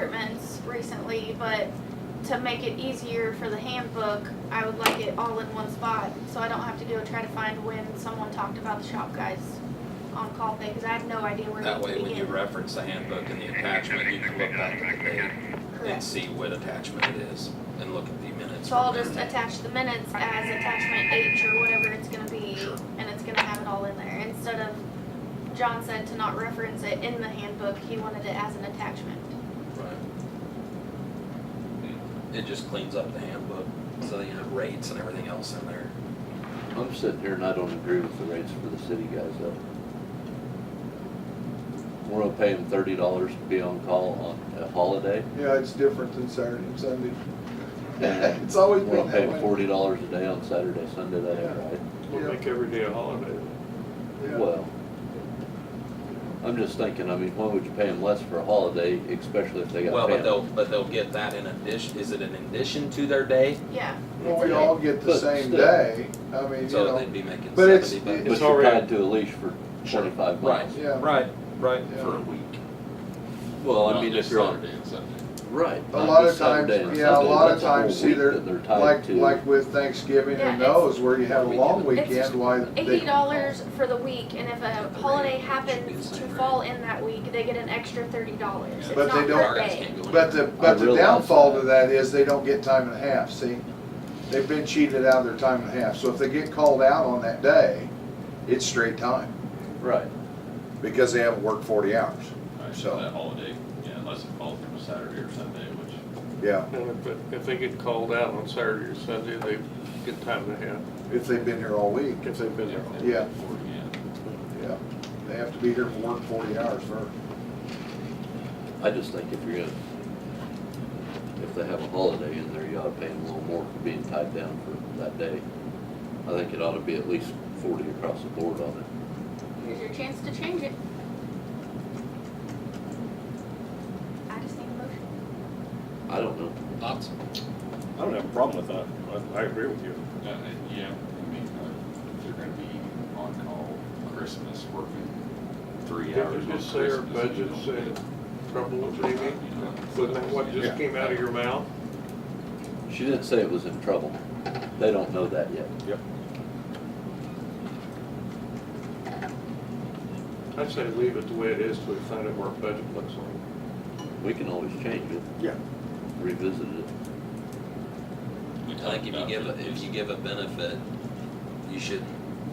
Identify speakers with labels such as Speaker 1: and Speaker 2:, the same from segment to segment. Speaker 1: departments recently, but to make it easier for the handbook, I would like it all in one spot, so I don't have to go try to find when someone talked about the shop guys on-call thing, because I have no idea where
Speaker 2: That
Speaker 1: to
Speaker 2: way, when you
Speaker 1: begin.
Speaker 2: reference the handbook and the attachment, you can look back at the date and
Speaker 1: Correct.
Speaker 2: see what attachment it is and look at the minutes.
Speaker 1: So I'll
Speaker 2: from
Speaker 1: just
Speaker 2: there.
Speaker 1: attach the minutes as attachment H or whatever it's gonna be, and it's gonna have it all in there, instead of, John said to not reference it in the handbook, he wanted it as an attachment.
Speaker 2: Right. It just cleans up the handbook, so you have rates and everything else in there.
Speaker 3: I'm sitting here and I don't agree with the rates for the city guys though. We're gonna pay them thirty dollars to be on call on a holiday.
Speaker 4: Yeah, it's different than Saturday and Sunday.
Speaker 3: Yeah.
Speaker 4: It's always
Speaker 3: We're
Speaker 4: been
Speaker 3: gonna pay
Speaker 4: that
Speaker 3: them
Speaker 4: way.
Speaker 3: forty dollars a day on Saturday, Sunday, that ain't right.
Speaker 5: We'll
Speaker 4: Yeah.
Speaker 5: make every day a holiday.
Speaker 4: Yeah.
Speaker 3: Well, I'm just thinking, I mean, why would you pay them less for a holiday, especially if they
Speaker 2: Well,
Speaker 3: got
Speaker 2: but
Speaker 3: family?
Speaker 2: they'll, but they'll get that in addition, is it an addition to their day?
Speaker 1: Yeah,
Speaker 4: Well, we all get the
Speaker 3: But
Speaker 4: same
Speaker 3: still.
Speaker 4: day, I mean, you
Speaker 2: So
Speaker 4: know,
Speaker 2: they'd be making
Speaker 4: but it's-
Speaker 2: seventy
Speaker 4: it's
Speaker 3: But
Speaker 2: bucks.
Speaker 3: you're
Speaker 5: already-
Speaker 3: tied to a leash for
Speaker 2: Sure.
Speaker 3: twenty-five
Speaker 2: Right,
Speaker 3: miles.
Speaker 4: yeah.
Speaker 2: right, right,
Speaker 4: Yeah.
Speaker 2: for a week.
Speaker 3: Well, I
Speaker 6: Not
Speaker 3: mean, if
Speaker 6: just
Speaker 3: you're on,
Speaker 6: Saturday and Sunday.
Speaker 3: right.
Speaker 4: A
Speaker 3: not
Speaker 4: lot
Speaker 3: just
Speaker 4: of times-
Speaker 3: Saturday and
Speaker 4: yeah, a
Speaker 3: Sunday,
Speaker 4: lot of
Speaker 3: that's whole
Speaker 4: times, see,
Speaker 3: week
Speaker 4: they're-
Speaker 3: that they're tied
Speaker 4: like,
Speaker 3: to.
Speaker 4: like with Thanksgiving
Speaker 1: Yeah,
Speaker 4: and
Speaker 1: it's-
Speaker 4: those, where you have a long
Speaker 1: It's-
Speaker 4: weekend, why they.
Speaker 1: eighty dollars for the week, and if a holiday happens to fall in that week, they get an extra thirty dollars. It's
Speaker 4: But they
Speaker 1: not
Speaker 4: don't-
Speaker 1: per
Speaker 2: Our guys
Speaker 1: day.
Speaker 2: can't go in.
Speaker 4: But the, but the
Speaker 3: realize
Speaker 4: downfall
Speaker 3: that.
Speaker 4: to that is they don't get time and a half, see? They've been cheated out of their time and a half, so if they get called out on that day, it's straight time,
Speaker 3: Right.
Speaker 4: because they haven't worked forty hours,
Speaker 6: Right,
Speaker 4: So-
Speaker 6: That holiday, yeah, unless it falls on a Saturday or Sunday, which.
Speaker 4: yeah,
Speaker 5: And if, it- if they get called out on Saturday or Sunday, they get time and a half,
Speaker 4: if they've been here all week,
Speaker 5: if they've been there. all week.
Speaker 4: Yeah.
Speaker 6: Or, yeah.
Speaker 4: yeah. They have to be here and work forty hours first.
Speaker 3: I just think if you're gonna, if they have a holiday in there, you ought to pay them a little more for being tied down for that day. I think it ought to be at least forty across the board on it.
Speaker 1: Here's your chance to change it. I just need a motion.
Speaker 3: I don't know.
Speaker 6: Lots.
Speaker 5: I don't have a problem with that. I, I agree with you.
Speaker 6: Uh, uh, yeah, I mean, uh, if they're gonna be on call Christmas, working three
Speaker 5: Didn't
Speaker 6: hours
Speaker 5: you
Speaker 6: on
Speaker 5: just say our
Speaker 6: Christmas. and you
Speaker 5: budget's
Speaker 6: don't
Speaker 5: in
Speaker 6: get-
Speaker 5: trouble with Amy?
Speaker 6: You know, that's
Speaker 5: Wasn't that what
Speaker 6: I'm
Speaker 5: just
Speaker 6: saying.
Speaker 5: came out of your mouth?
Speaker 3: She didn't say it was in trouble. They don't know that yet.
Speaker 5: I'd say leave it the way it is till we find out what our budget looks like.
Speaker 3: We can always change it.
Speaker 5: Yeah.
Speaker 3: Revisit it.
Speaker 6: We
Speaker 2: I think if you
Speaker 6: talked
Speaker 2: give,
Speaker 6: about
Speaker 2: a- if you give a benefit, you should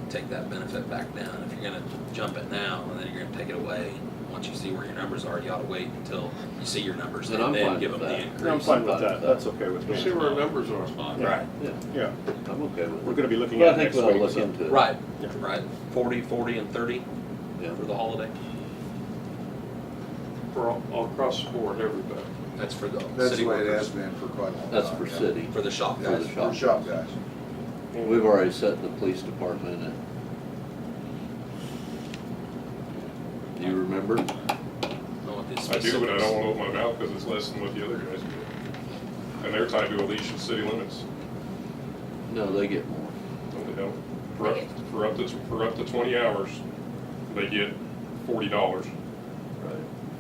Speaker 2: take that benefit back down. If you're gonna jump it now, and then you're gonna take it away, once you see where your numbers are, you ought to wait until you see your numbers,
Speaker 3: And
Speaker 2: and
Speaker 3: I'm
Speaker 2: then
Speaker 3: fine
Speaker 2: give
Speaker 3: with
Speaker 2: them the
Speaker 3: that.
Speaker 7: I'm
Speaker 2: increase.
Speaker 7: fine with that, that's okay with
Speaker 5: We'll see
Speaker 7: me.
Speaker 5: where our numbers are.
Speaker 6: Fine.
Speaker 2: Right,
Speaker 7: Yeah,
Speaker 3: I'm okay with it.
Speaker 7: we're gonna be looking
Speaker 3: But I
Speaker 7: at it
Speaker 3: think
Speaker 7: next
Speaker 3: we ought to look
Speaker 7: week.
Speaker 3: into it.
Speaker 2: right,
Speaker 7: Yeah.
Speaker 2: right. Forty, forty, and thirty
Speaker 3: Yeah.
Speaker 2: for the holiday.
Speaker 5: for all, all across the board, everybody.
Speaker 2: That's for the
Speaker 4: That's
Speaker 2: city
Speaker 4: the way it
Speaker 2: workers,
Speaker 4: has been for quite a long time.
Speaker 3: That's for
Speaker 4: yeah.
Speaker 3: city.
Speaker 2: for the shop
Speaker 4: Yeah,
Speaker 3: For
Speaker 2: guys.
Speaker 3: the
Speaker 4: it's for
Speaker 3: shop.
Speaker 4: shop guys.
Speaker 3: We've already set the police department at. Do you remember?
Speaker 2: Know what the
Speaker 8: I do, but I
Speaker 2: specifics-
Speaker 8: don't wanna open my mouth because it's less than what the other guys do. And they're tied to a leash of city limits,
Speaker 3: No, they get more.
Speaker 8: no, they don't. For up, for up to, for up to twenty hours, they get forty dollars.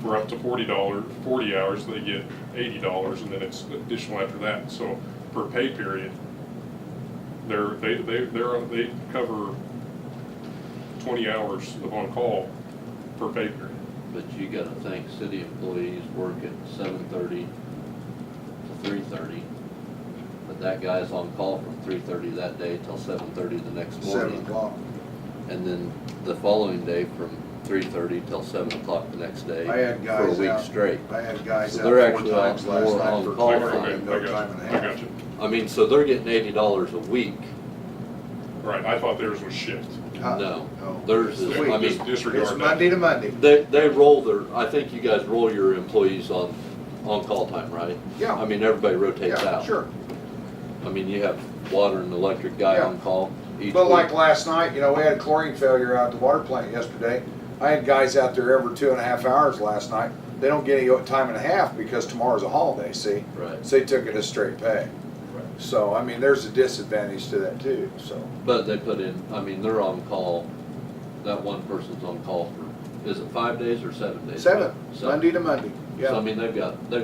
Speaker 8: For up to forty dollar, forty hours, they get eighty dollars, and then it's additional after that, so per pay period, they're, they, they, they're, they cover twenty hours of on-call per pay period.
Speaker 3: But you gotta think, city employees work at seven thirty to three thirty. But that guy's on call from three thirty that day till seven thirty the next
Speaker 4: Seven
Speaker 3: morning.
Speaker 4: o'clock.
Speaker 3: And then the following day from three thirty till seven o'clock the next day.
Speaker 4: I had
Speaker 3: For a
Speaker 4: guys
Speaker 3: week
Speaker 4: out.
Speaker 3: straight.
Speaker 4: I had guys
Speaker 3: So
Speaker 4: out
Speaker 3: they're
Speaker 4: four
Speaker 3: actually
Speaker 4: times
Speaker 3: on-
Speaker 4: last
Speaker 3: more
Speaker 4: night
Speaker 3: on
Speaker 4: for
Speaker 3: call
Speaker 4: call
Speaker 3: time.
Speaker 4: time,
Speaker 8: I
Speaker 4: no
Speaker 8: got you.
Speaker 4: time and a
Speaker 8: I got
Speaker 4: half.
Speaker 8: you.
Speaker 3: I mean, so they're getting eighty dollars a week.
Speaker 8: Right, I thought theirs was shift.
Speaker 4: Huh?
Speaker 3: No,
Speaker 4: No.
Speaker 3: theirs is,
Speaker 4: Wait,
Speaker 3: I mean,
Speaker 8: Just disregard
Speaker 4: It's
Speaker 8: that.
Speaker 4: Monday to Monday.
Speaker 3: They, they roll their, I think you guys roll your employees on, on call time, right?
Speaker 4: Yeah.
Speaker 3: I mean, everybody rotates
Speaker 4: Yeah,
Speaker 3: out.
Speaker 4: sure.
Speaker 3: I mean, you have water and electric guy
Speaker 4: Yeah.
Speaker 3: on call each
Speaker 4: But like
Speaker 3: week.
Speaker 4: last night, you know, we had a chlorine failure out at the water plant yesterday. I had guys out there every two and a half hours last night. They don't get any time and a half because tomorrow's a holiday, see?
Speaker 3: Right,
Speaker 4: So they took it as straight pay. So, I mean, there's a disadvantage to that too, so.
Speaker 3: but they put in, I mean, they're on call, that one person's on call for, is it five days or seven days?
Speaker 4: Seven,
Speaker 3: Seven.
Speaker 4: Monday to Monday, yeah.
Speaker 3: So I mean, they've got, they've